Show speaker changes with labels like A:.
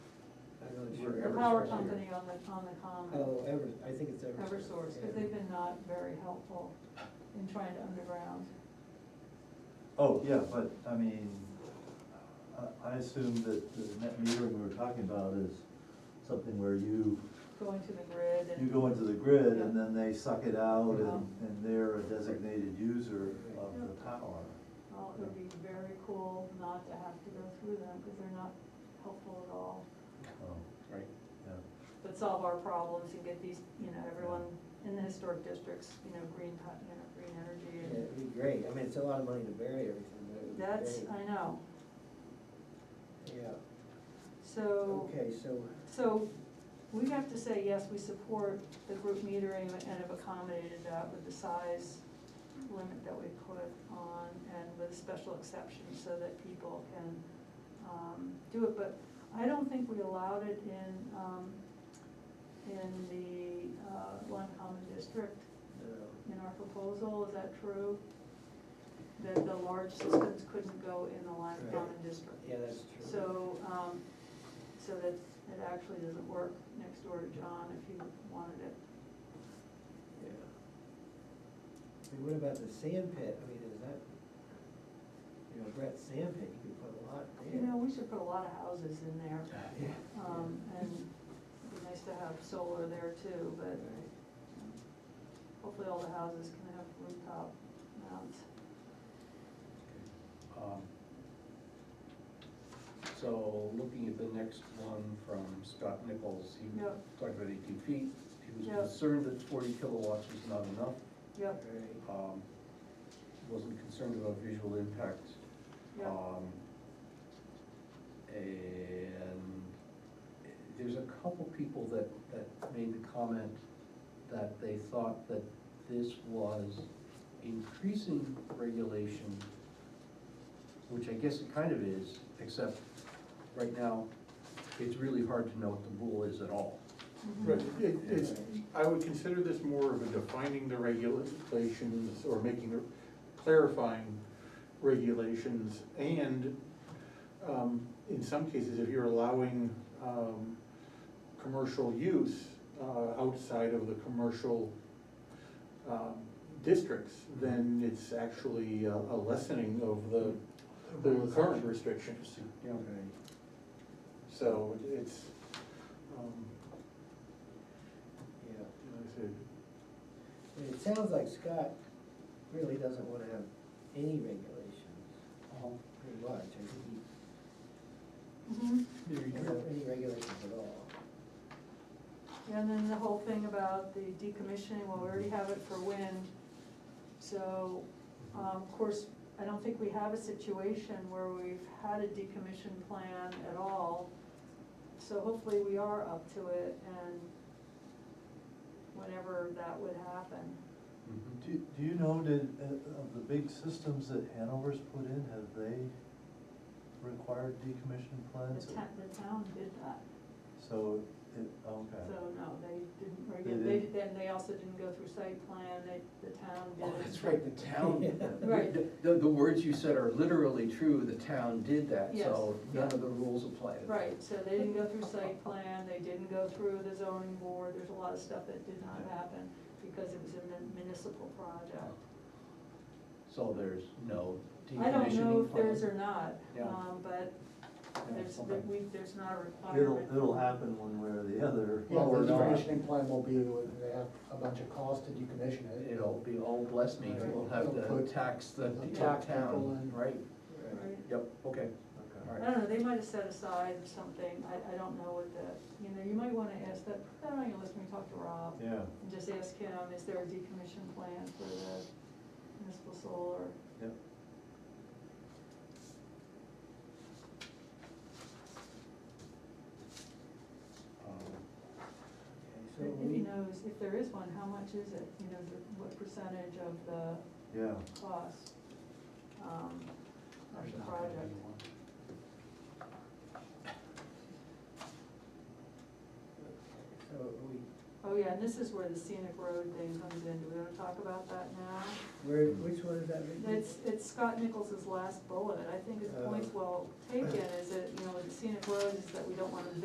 A: for
B: The
A: Eversource
B: power
A: here.
B: company on the, on the common,
A: Oh, ever, I think it's ever.
B: Eversource, because they've been not very helpful in trying to underground.
C: Oh, yeah, but, I mean, I, I assume that the net metering we were talking about is something where you,
B: going to the grid
C: you
B: and,
C: go into the grid and then they suck it out and,
B: Yeah.
C: and they're a designated user of the power.
B: well, it would be very cool not to have to go through them, because they're not helpful at all.
C: Oh,
A: Right.
C: yeah.
B: But solve our problems and get these, you know, everyone in the historic districts, you know, green, po- you know, green
A: Yeah,
B: energy.
A: it'd be great, I mean, it's a lot of money to bury everything, but it would
B: and
A: be
B: That's,
A: great.
B: I know,
A: Yeah,
B: so.
A: okay, so,
B: So we have to say, yes, we support the group metering and have accommodated that with the size limit that we put on and with special exceptions so that people can um, do it. But I don't think we allowed it in, um, in the uh, Lund Common District
A: uh,
B: in our proposal, is that true? That the large systems couldn't go in the Lund
A: Right.
B: Common District?
A: yeah, that's true.
B: So, um, so that it actually doesn't work next door to John if you wanted it.
A: Yeah. I mean, what about the sand pit, I mean, is that, you know, Brett's sand pit, you could put a lot there.
B: You know, we should put a lot of houses in there,
A: Yeah.
B: um, and it'd be nice to have solar there too, but
A: Right.
B: hopefully all the houses can have rooftop mounts.
D: Um, So looking at the next one from Scott Nichols, he
B: Yep.
D: talked about eighteen feet. He was
B: Yep.
D: concerned that forty kilowatts was not enough.
B: Yep,
A: Right.
D: Um, Wasn't concerned about visual impact.
B: yep,
D: Um, And there's a couple people that, that made the comment that they thought that this was increasing regulation, which I guess it kind of is, except right now, it's really hard to know what the rule is at all.
B: mhm,
E: Right, it, it's, I would consider this more of a defining the regulations or making, clarifying regulations and, um, in some cases, if you're allowing, um, commercial use, uh, outside of the commercial, um, districts, then it's actually a a lessening of the, the current restrictions.
D: Yeah.
A: Right.
E: So it's, um,
A: Yeah.
E: like I said,
A: I mean, It sounds like Scott really doesn't wanna have any regulations,
F: Uh-huh.
A: pretty much, I think he
B: mhm.
D: There you
A: doesn't have
D: go.
A: any regulations at all.
B: And then the whole thing about the decommissioning, well, we already have it for wind. So, um, of course, I don't think we have a situation where we've had a decommission plan at all. So hopefully we are up to it and whenever that would happen.
D: Mhm.
C: Do, do you know, did, uh, of the big systems that Hanover's put in, have they required decommission plans?
B: The town, the town did that,
C: So, it, okay.
B: so no, they didn't, regu-
C: They
B: they,
C: didn't?
B: then they also didn't go through site plan, they, the town did
D: Oh,
B: it.
D: that's right, the town,
A: Yeah.
B: Right.
D: the, the- the words you said are literally true, the town did that, so
B: Yes,
D: none
B: yeah.
D: of the rules apply to that.
B: Right, so they didn't go through site plan, they didn't go through the zoning board, there's a lot of stuff that did not happen because it was a mun- municipal project.
D: So there's no decommissioning.
B: I don't know if
D: plan?
B: there's or not,
D: Yeah.
B: um, but there's,
D: okay.
B: we, there's not a
C: It'll,
B: requirement.
C: it'll happen one way or the other.
F: Yeah,
D: Well, we're
F: the
D: not.
F: decommissioning plan will be, that they have a bunch of costs to decommission it.
D: It'll be, oh, bless me, we'll have
F: Put-
D: to tax the
F: put
D: the
F: tax people
D: town,
F: in.
D: right?
B: Right.
D: Yep, okay, all
C: Okay.
B: I
D: right.
B: don't know, they might have set aside something, I, I don't know what the, you know, you might wanna ask that, put that on your list when we talk to Rob.
C: Yeah,
B: And just ask him, is there a decommission plan for the municipal solar?
C: yeah.
D: Um,
A: Okay, So
B: If he
A: we,
B: knows, if there is one, how much is it, you know, the- what percentage of the
C: yeah.
B: cost, um, of
D: there's
B: the
D: not gonna be
B: project?
D: one.
A: so we,
B: Oh, yeah, and this is where the scenic road thing comes in, do we wanna talk about that now?
A: where, which one is that written?
B: It's, it's Scott
A: Uh,
B: Nichols's last bullet, I think his point's well taken, is that, you know, the scenic road is that we don't wanna